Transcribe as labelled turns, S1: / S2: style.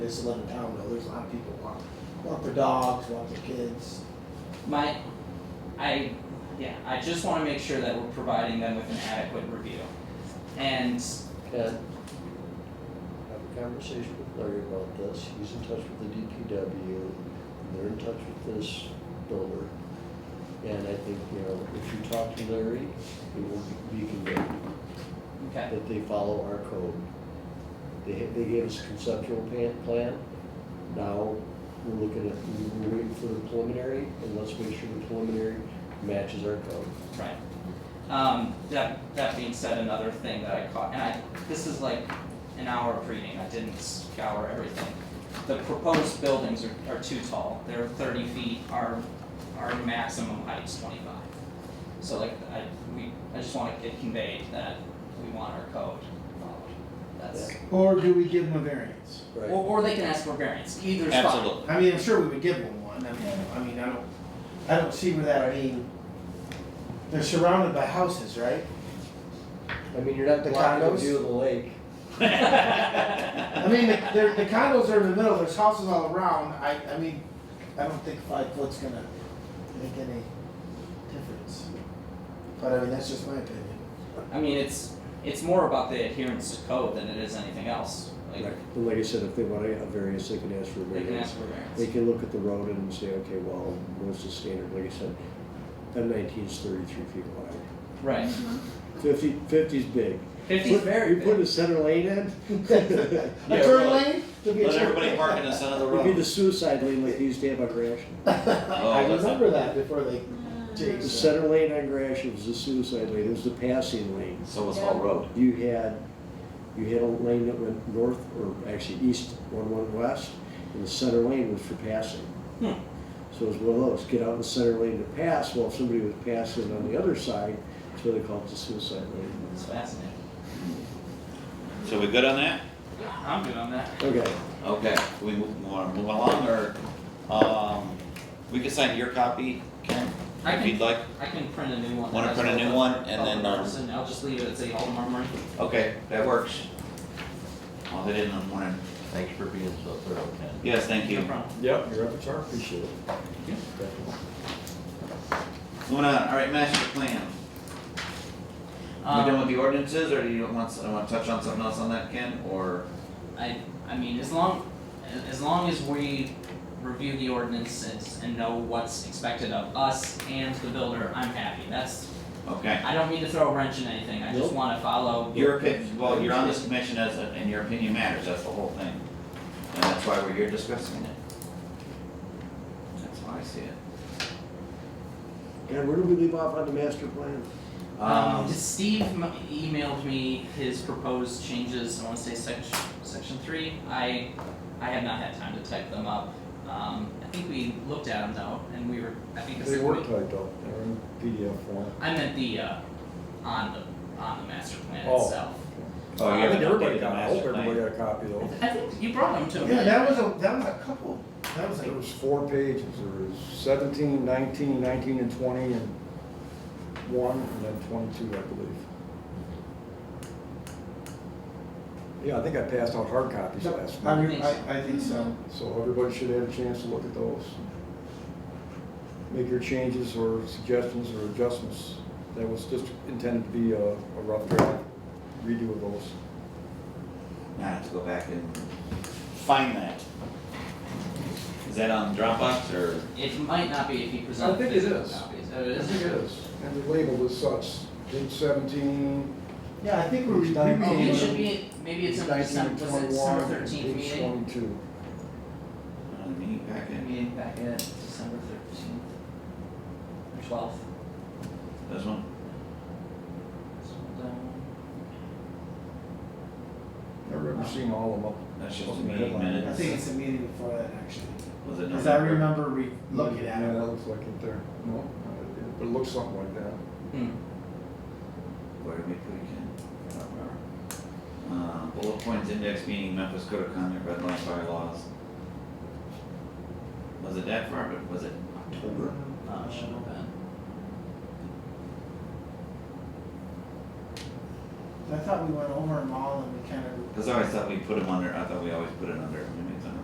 S1: just live in town, though, there's a lot of people walk, walk their dogs, walk their kids.
S2: My, I, yeah, I just wanna make sure that we're providing them with an adequate review. And
S3: Ken, have a conversation with Larry about this, he's in touch with the DPW, they're in touch with this builder. And I think, you know, if you talk to Larry, it will be conveyed
S2: Okay,
S3: that they follow our code. They, they gave us a conceptual plan, plan, now we're looking at, we're waiting for the preliminary, and let's make sure the preliminary matches our code.
S2: right. Um, that, that being said, another thing that I caught, and I, this is like an hour of reading, I didn't scour everything. The proposed buildings are, are too tall, they're thirty feet, our, our maximum height's twenty-five. So like, I, we, I just want it conveyed that we want our code followed, that's,
S1: Or do we give them a variance?
S2: or,
S3: Right.
S2: or they can ask for variance, either's fine.
S4: Absolutely.
S1: I mean, I'm sure we would give them one, I mean, I mean, I don't, I don't see where that, I mean, they're surrounded by houses, right?
S3: I mean, you're not
S1: The
S3: blocking the
S1: condos?
S3: view of the lake.
S1: I mean, the, they're- the condos are in the middle, there's houses all around, I, I mean, I don't think five foot's gonna make any difference. But I mean, that's just my opinion.
S2: I mean, it's, it's more about the adherence to code than it is anything else, like,
S3: And like I said, if they want a variance, they can ask for a
S2: they can
S3: variance.
S2: ask for variance.
S3: They can look at the road and say, okay, well, what's the standard, like I said, M nineteen's thirty-three feet wide.
S2: Right.
S3: Fifty, fifty's big.
S2: Fifty's
S3: Put-
S2: very
S3: You put a
S2: big.
S3: center lane in,
S1: A
S4: Yeah,
S1: turn
S4: well,
S1: lane? There'll be a
S4: Let
S1: turn
S4: everybody
S1: lane.
S4: park in the center of the
S3: it'd be the
S4: road.
S3: suicide lane like they used to have on Gratiot.
S1: I
S4: Oh, that's-
S1: remember that before they changed
S3: The
S1: that.
S3: center lane on Gratiot was the suicide lane, it was the passing lane.
S4: So it's all road.
S3: You had, you had a lane that went north, or actually east, one went west, and the center lane was for passing.
S2: Hmm.
S3: So it was one of those, get out in the center lane to pass, well, if somebody was passing on the other side, that's why they call it the suicide lane.
S2: It's fascinating.
S4: So we good on that?
S2: I'm good on that.
S3: Okay,
S4: Okay, do we move, wanna move along, or, um, we can sign your copy, Ken,
S2: I
S4: if
S2: can,
S4: you'd like?
S2: I can print a new one.
S4: Wanna
S2: as
S4: print a
S2: well.
S4: new one and then, um,
S2: Person, I'll just leave it at City Hall tomorrow morning.
S4: Okay, that works. I'll hit it in the morning.
S5: Thanks for being so thorough, Ken.
S4: Yes, thank
S2: No
S4: you.
S2: problem.
S3: Yep, your repertoire, appreciate it.
S2: Yeah.
S3: Definitely.
S4: Moving on, all right, master plan. We done
S2: Um,
S4: with the ordinances, or do you want, I wanna touch on something else on that, Ken, or?
S2: I, I mean, as long, as long as we review the ordinances and know what's expected of us and the builder, I'm happy. That's,
S4: Okay,
S2: I don't mean to throw a wrench in anything, I just
S3: Nope.
S2: wanna follow.
S4: your opinion, well, you're on this commission as, a- and your opinion matters, that's the whole thing. And that's why we're here discussing it. That's how I see it.
S3: And where do we leave off on the master plan?
S2: Um,
S4: Um,
S2: Steve m- emailed me his proposed changes, I wanna say section, section three, I, I have not had time to type them up. Um, I think we looked at them though, and we were, I think this
S6: They
S2: is,
S6: were
S2: we,
S6: typed up, they're in PDF form.
S2: I meant the, uh, on the, on the master plan
S6: Oh.
S2: itself.
S4: oh, you
S6: I think
S4: haven't
S6: everybody
S4: updated the
S6: got, I hope
S4: master
S6: everybody
S4: plan.
S6: got a copy though.
S2: I think you brought them to me.
S1: Yeah, that was a, that was a couple, that was
S6: There
S1: like,
S6: was four pages, there was seventeen, nineteen, nineteen and twenty and one, and then twenty-two, I believe. Yeah, I think I passed out hard copies last
S1: I,
S6: night,
S1: re- I, I think so.
S6: so everybody should have a chance to look at those. Make your changes or suggestions or adjustments, that was just intended to be a, a rough draft, redo of those.
S4: I have to go back and find that. Is that on Dropbox or?
S2: It might not be if you present
S6: I think it
S2: physical
S6: is.
S2: copies, oh, it
S6: I
S2: is?
S6: think it is, and they're labeled as such, page seventeen,
S1: Yeah, I think we were, we
S6: It's done.
S2: Oh, it should
S1: redid it.
S2: be, maybe it's
S6: page
S2: in
S6: nineteen,
S2: December, was it December
S6: twenty-one,
S2: thirteenth
S6: page
S2: meeting?
S6: twenty-two.
S4: On the meat packet?
S2: Meeting back at December thirteenth, or twelfth.
S4: This one?
S2: Scroll down.
S6: I've never seen all of them up.
S4: That's just
S6: up
S4: a
S6: in the
S4: meeting
S6: headline.
S1: I
S4: minutes.
S1: think it's a meeting before that, actually,
S4: Was it
S1: cause I
S4: November?
S1: remember re, looking at
S6: Yeah,
S1: it.
S6: that looks like it there, no, it- it looks something like that.
S2: Hmm.
S4: Where did we put it in? I don't remember. Uh, bullet points index meeting Memphis Code of Conduct, red line bylaws. Was it that far, but was it October?
S2: Uh, should have been.
S1: I thought we went over them all and we kind of
S4: Cause I always thought we put them under, I thought we always put it under, maybe